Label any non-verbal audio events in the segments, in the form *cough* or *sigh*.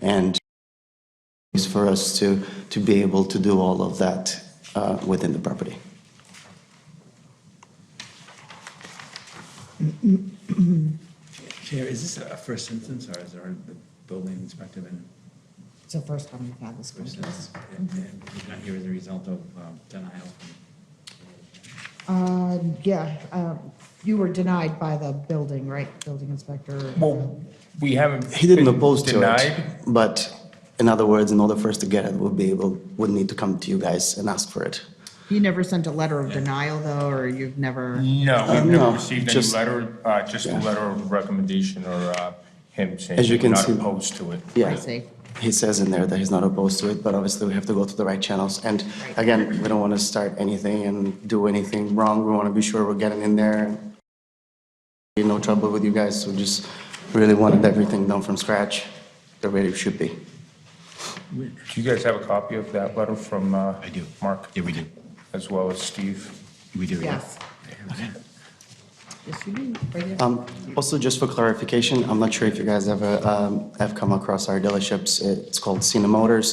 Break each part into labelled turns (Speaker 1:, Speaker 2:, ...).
Speaker 1: and is for us to, to be able to do all of that uh, within the property.
Speaker 2: Chair, is this a first instance, or has there already the building inspector been?
Speaker 3: It's the first time we've had this
Speaker 2: first
Speaker 3: process.
Speaker 2: instance? And and he's not here as a result of um, denial?
Speaker 3: Uh, yeah, uh, you were denied by the building, right? Building inspector.
Speaker 4: Well, we haven't.
Speaker 1: He didn't
Speaker 4: been
Speaker 1: oppose to it,
Speaker 4: denied.
Speaker 1: but in other words, in order for us to get it, we'll be able, we'll need to come to you guys and ask for it.
Speaker 3: You never sent a letter of denial though, or you've never,
Speaker 4: No,
Speaker 1: Uh,
Speaker 4: we've
Speaker 1: no,
Speaker 4: never received any
Speaker 1: just-
Speaker 4: letter, uh, just a letter of recommendation or uh, him saying
Speaker 1: As you
Speaker 4: we're
Speaker 1: can
Speaker 4: not
Speaker 1: see-
Speaker 4: opposed to it.
Speaker 1: Yeah.
Speaker 3: I see.
Speaker 1: He says in there that he's not opposed to it, but obviously we have to go through the right channels. And
Speaker 3: Right.
Speaker 1: again, we don't want to start anything and do anything wrong. We want to be sure we're getting in there. Be No trouble with you guys, so just really wanted everything done from scratch, the way it should be.
Speaker 4: Do you guys have a copy of that letter from? I
Speaker 5: do.
Speaker 4: Mark?
Speaker 5: Yeah, we do.
Speaker 4: As well as Steve?
Speaker 5: We do, yeah.
Speaker 3: Yes. Yes, you do, right there.
Speaker 1: Um, Also, just for clarification, I'm not sure if you guys ever um, have come across our dealerships. It's called Cena Motors.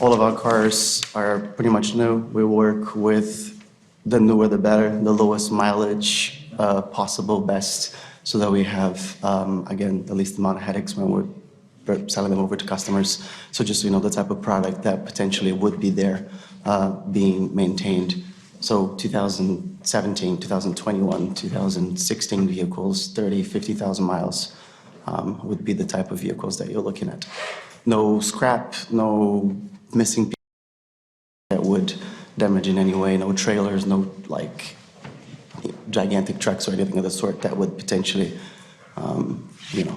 Speaker 1: All of our cars are pretty much new. We work with the newer the better, the lowest mileage uh, possible best, so that we have, um, again, the least amount of headaches when we're we're selling them over to customers. So just, so you know, the type of product that potentially would be there uh, being maintained. So 2017, 2021, 2016 vehicles, 30, 50,000 miles um, would be the type of vehicles that you're looking at. No scrap, no missing pieces that would damage in any way, no trailers, no like gigantic trucks or anything of the sort that would potentially, um, you know,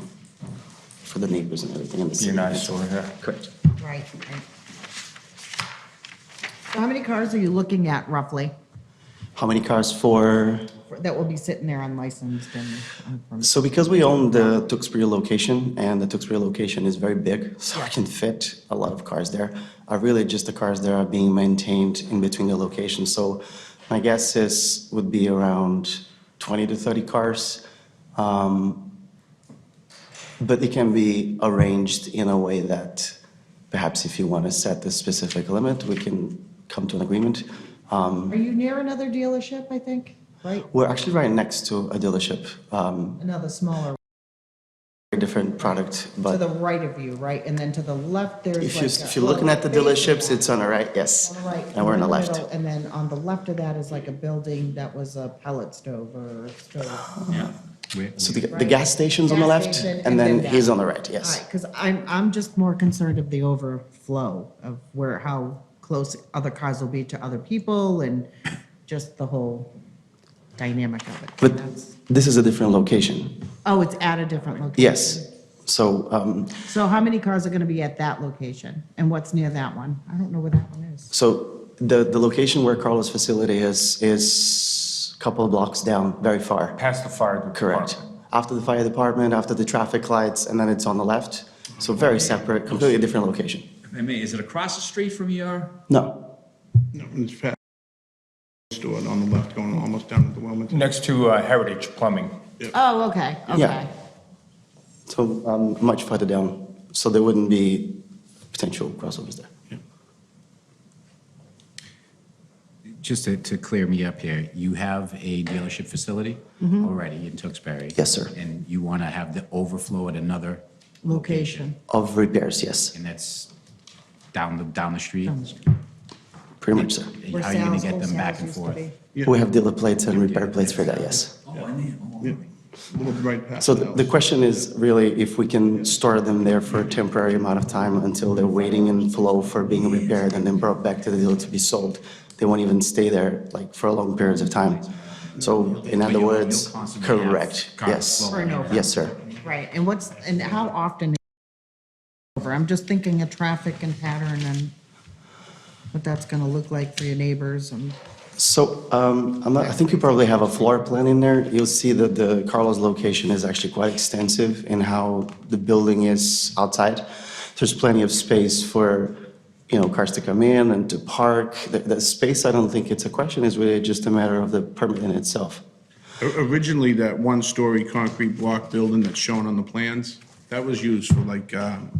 Speaker 1: for the neighbors and everything in the city.
Speaker 4: You're not sure, yeah?
Speaker 1: Correct.
Speaker 3: Right, right. So how many cars are you looking at roughly
Speaker 1: How many cars for,
Speaker 3: that will be sitting there unlicensed and unpermitted?
Speaker 1: so because we own the Tewksbury location, and the Tewksbury location is very big, *laughs* so I can fit a lot of cars there, are really just the cars that are being maintained in between the locations. So my guess is, would be around 20 to 30 cars. Um, But it can be arranged in a way that perhaps if you want to set the specific limit, we can come to an agreement. Um,
Speaker 3: Are you near another dealership, I think, right?
Speaker 1: We're actually right next to a dealership, um,
Speaker 3: Another smaller,
Speaker 1: very different product,
Speaker 3: to the
Speaker 1: but
Speaker 3: right of you, right? And then to the left,
Speaker 1: if
Speaker 3: there's like.
Speaker 1: you,
Speaker 3: a-
Speaker 1: if you're looking at the
Speaker 3: Well,
Speaker 1: dealerships,
Speaker 3: basically-
Speaker 1: it's on the right, yes.
Speaker 3: On the right.
Speaker 1: And we're on the left.
Speaker 3: middle, And then on the left of that is like a building that was a pellet stove or stove.
Speaker 2: Yeah.
Speaker 1: So the, the gas station's on the
Speaker 3: Gas
Speaker 1: left,
Speaker 3: station
Speaker 1: and then
Speaker 3: that.
Speaker 1: he's on the right,
Speaker 3: All
Speaker 1: yes.
Speaker 3: right, because I'm, I'm just more concerned of the overflow of where, how close other cars will be to other people and just the whole dynamic of it.
Speaker 1: But
Speaker 3: That's-
Speaker 1: this is a different location,
Speaker 3: Oh, it's at a different location?
Speaker 1: yes. So, um,
Speaker 3: So how many cars are going to be at that location? And what's near that one? I don't know where that one is.
Speaker 1: So the, the location where Carlos' facility is, is a couple of blocks down, very far.
Speaker 4: Past the fire department?
Speaker 1: Correct. After the fire department, after the traffic lights, and then it's on the left. So very separate, completely different location.
Speaker 2: If I may, is it across the street from E your,
Speaker 1: No,
Speaker 6: No, it's past store on the left, going almost down to the Wilmington.
Speaker 4: Next to uh, Heritage Plumbing.
Speaker 3: Oh, okay, okay.
Speaker 1: so um, much further down. So there wouldn't be potential crossovers there.
Speaker 5: Just to, to clear me up here, you have a dealership facility
Speaker 3: Mm-hmm.
Speaker 5: already in Tewksbury?
Speaker 1: Yes, sir.
Speaker 5: And you want to have the overflow at another,
Speaker 3: Location.
Speaker 1: Of repairs, yes,
Speaker 5: and that's down the, down the street?
Speaker 3: Down the street.
Speaker 1: pretty much, sir.
Speaker 5: And
Speaker 3: Where
Speaker 5: how are you going
Speaker 3: Sal's-
Speaker 5: to get
Speaker 3: old
Speaker 5: them back
Speaker 3: Sal's
Speaker 5: and
Speaker 3: used to
Speaker 5: forth?
Speaker 3: be.
Speaker 1: We have dealer plates and repair plates for that, yes.
Speaker 2: oh, I need, oh,
Speaker 6: Yeah, Little right past.
Speaker 1: So
Speaker 6: the
Speaker 1: the the
Speaker 6: house.
Speaker 1: question is really if we can store them there for a temporary amount of time until they're waiting in flow for being repaired and then brought back to the dealer to be sold. They won't even stay there like for long periods of time. So in other words, correct, yes. Yes, sir.
Speaker 3: Right, and what's, and how often? Over, I'm just thinking of traffic and pattern and what that's going to look like for your neighbors and,
Speaker 1: So um, I'm not, I think you probably have a floor plan in there. You'll see that the Carlos location is actually quite extensive in how the building is outside. There's plenty of space for, you know, cars to come in and to park. The, the space, I don't think it's a question, is really just a matter of the permit in itself.
Speaker 6: O- Originally, that one-story concrete block building that's shown on the plans, that was used for like, um,